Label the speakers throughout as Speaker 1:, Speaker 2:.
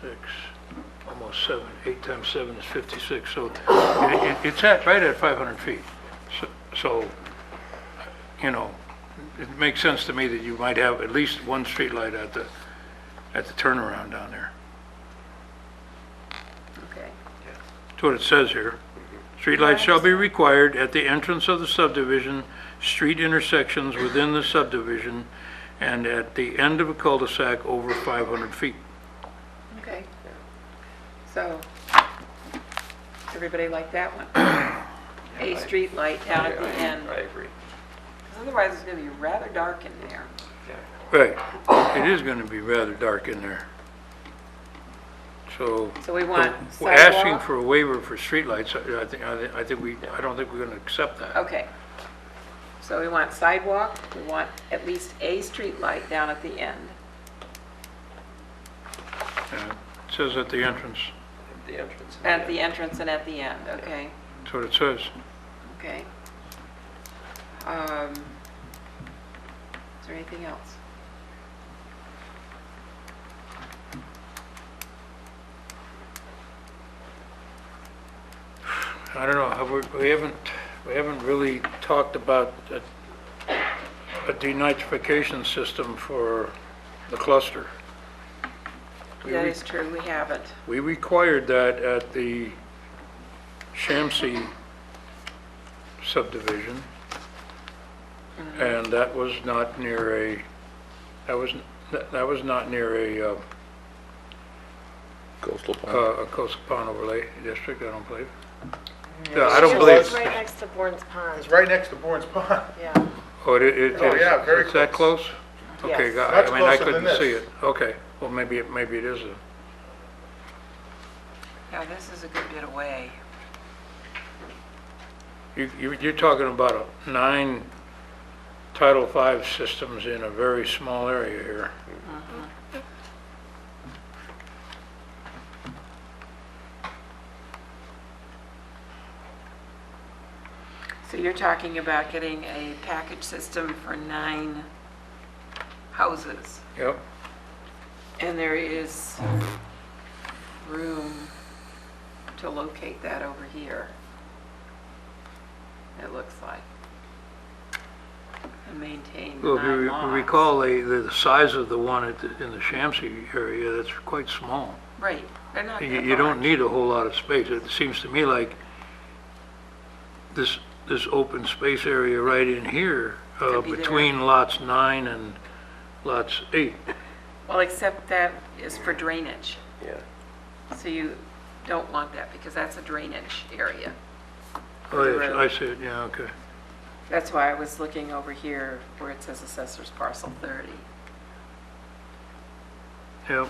Speaker 1: six, almost seven, eight times seven is 56, so it- it- it's at, right at 500 feet. So- So, you know, it makes sense to me that you might have at least one streetlight at the, at the turnaround down there.
Speaker 2: Okay.
Speaker 1: That's what it says here. Streetlights shall be required at the entrance of the subdivision, street intersections within the subdivision, and at the end of a cul-de-sac over 500 feet.
Speaker 2: Okay. So, everybody like that one? A street light down at the end,
Speaker 3: I agree.
Speaker 2: 'cause otherwise it's gonna be rather dark in there.
Speaker 1: Right, it is going to be rather dark in there. So.
Speaker 2: So we want
Speaker 1: We're asking
Speaker 2: sidewalk?
Speaker 1: for a waiver for streetlights, I I think, I thi- I think we, I don't think we're going to accept that.
Speaker 2: Okay. So we want sidewalk, we want at least a street light down at the end.
Speaker 1: Uh, It says at the entrance,
Speaker 3: At the entrance.
Speaker 2: At the entrance and at the end, okay,
Speaker 1: that's what it says.
Speaker 2: okay. Um, Is there anything else?
Speaker 1: I don't know, have we, we haven't, we haven't really talked about a a denitrification system for the cluster. We
Speaker 2: That
Speaker 1: re-
Speaker 2: is true, we haven't.
Speaker 1: We required that at the Shamsi subdivision, and that was not near a, that was, that that was not near a, uh,
Speaker 4: Coastal Pond.
Speaker 1: a coastal pond overlay district, I don't believe. No, I don't believe,
Speaker 5: It's right next to Bourne's Pond,
Speaker 6: It's right next to Bourne's Pond.
Speaker 5: yeah.
Speaker 1: oh, it, it,
Speaker 6: Oh, yeah, very
Speaker 1: it's that
Speaker 6: close.
Speaker 1: close? Okay,
Speaker 5: Yes.
Speaker 1: got-
Speaker 6: Much
Speaker 1: I mean, I
Speaker 6: closer than
Speaker 1: couldn't see
Speaker 6: this.
Speaker 1: it, okay, well, maybe, it maybe it is a.
Speaker 2: Now, this is a good bit away.
Speaker 1: You- you- You're talking about a nine Title V systems in a very small area here.
Speaker 2: So you're talking about getting a package system for nine houses,
Speaker 1: Yep,
Speaker 2: and there is room to locate that over here, it looks like, and maintain
Speaker 1: well, if
Speaker 2: nine
Speaker 1: you
Speaker 2: lots.
Speaker 1: re- recall, the, the size of the one at, the- in the Shamsi area, that's quite small.
Speaker 2: Right, they're not
Speaker 1: You,
Speaker 2: that
Speaker 1: you don't
Speaker 2: large.
Speaker 1: need a whole lot of space. It seems to me like this, this open space area right in here, uh,
Speaker 2: Could be there.
Speaker 1: between lots nine and lots eight.
Speaker 2: Well, except that is for drainage,
Speaker 3: Yeah.
Speaker 2: so you don't want that, because that's a drainage area.
Speaker 1: Oh, yes,
Speaker 2: road.
Speaker 1: I see it, yeah, okay.
Speaker 2: That's why I was looking over here where it says assessor's parcel 30.
Speaker 1: Yep,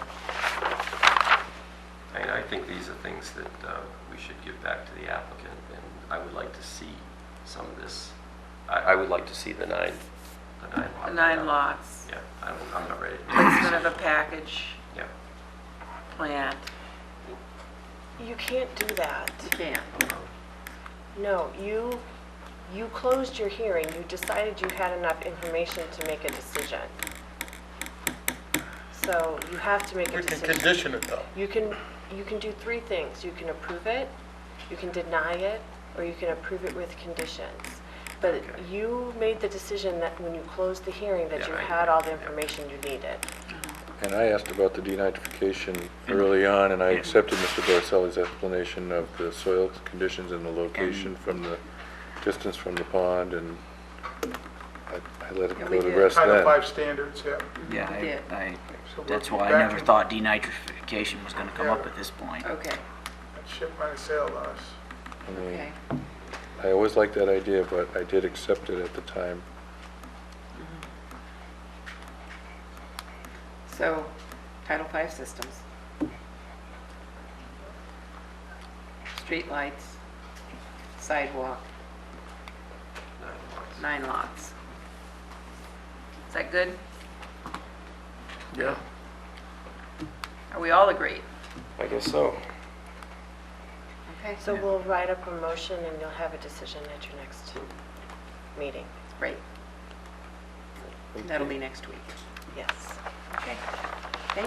Speaker 3: I mean, I think these are things that uh, we should give back to the applicant, and I would like to see some of this. I, I would like to see the nine, the nine lot.
Speaker 2: The nine
Speaker 3: layout.
Speaker 2: lots,
Speaker 3: Yeah, I don't, I'm not ready. to do this.
Speaker 2: placement of a package
Speaker 3: Yeah,
Speaker 2: plan.
Speaker 5: You can't do that.
Speaker 2: Can't.
Speaker 5: No, you, you closed your hearing, you decided you had enough information to make a decision. So you have to make a
Speaker 6: We can
Speaker 5: decision.
Speaker 6: condition it though.
Speaker 5: You can, you can do three things. You can approve it, you can deny it, or you can approve it with conditions. But you made the decision that when you closed the hearing, that
Speaker 3: Yeah,
Speaker 5: you
Speaker 3: I-
Speaker 5: had all the information you needed.
Speaker 4: And I asked about the denitrification early on, and I accepted Mr. Barcelli's explanation of the soil conditions and the location from the, distance from the pond, and I I let it
Speaker 2: Yeah, we
Speaker 4: go to
Speaker 2: did.
Speaker 4: rest
Speaker 6: Title
Speaker 4: then.
Speaker 6: five standards, yeah.
Speaker 7: Yeah,
Speaker 2: did.
Speaker 7: I, I,
Speaker 6: So we're
Speaker 7: that's why I
Speaker 6: back
Speaker 7: never
Speaker 6: in-
Speaker 7: thought denitrification was gonna come up
Speaker 6: Yeah.
Speaker 7: at this point.
Speaker 2: Okay,
Speaker 6: That ship might sail on us.
Speaker 4: I mean,
Speaker 2: okay.
Speaker 4: I always liked that idea, but I did accept it at the time.
Speaker 2: So Title V systems. Streetlights, sidewalk,
Speaker 3: nine
Speaker 2: nine
Speaker 3: lots.
Speaker 2: lots. Is that good?
Speaker 1: yeah.
Speaker 2: Are we all agreed?
Speaker 3: I guess so.
Speaker 2: Okay,
Speaker 5: So we'll write up a motion and you'll have a decision at your next meeting.
Speaker 2: great. That'll be next week.
Speaker 5: Yes.
Speaker 2: Okay.